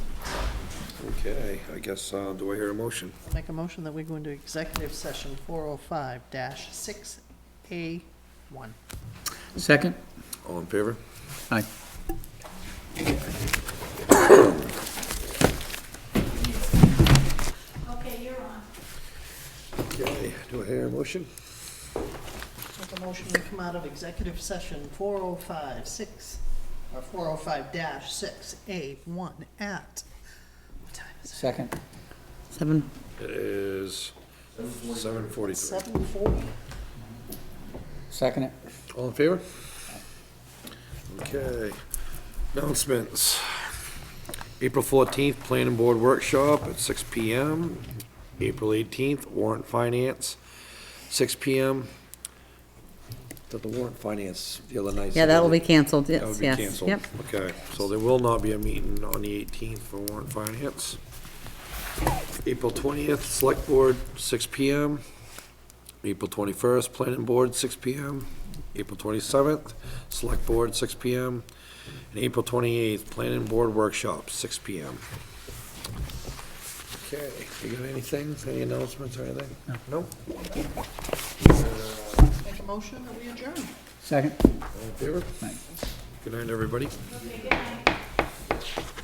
Okay, I guess, uh, do I hear a motion? I'll Make a motion that we go into executive session 405-6A1. Second? All in favor? Aye. Okay, you're on. Okay, do I hear a motion? Make a motion to come out of executive session 405-6, or 405-6A1 at, what time is Second? Seven? It is seven it? forty-three. 7:40? Second it. All in favor? Okay, announcements. April fourteenth, planning board workshop at six P M. April eighteenth, warrant finance, six P M. Did the warrant finance the other night? Yeah, that'll be That canceled, would yes, be yes, canceled. yep. Okay, so there will not be a meeting on the eighteenth for warrant finance. April twentieth, select board, six P M. April 21st, Planning Board, 6 PM. April 27th, Select Board, 6 PM. And April 28th, Planning Board Workshop, 6 PM. Okay, you got anything, any announcements or anything? No. Make a motion that we adjourn. Second? All in favor? Aye. Good night, everybody. Okay, good night.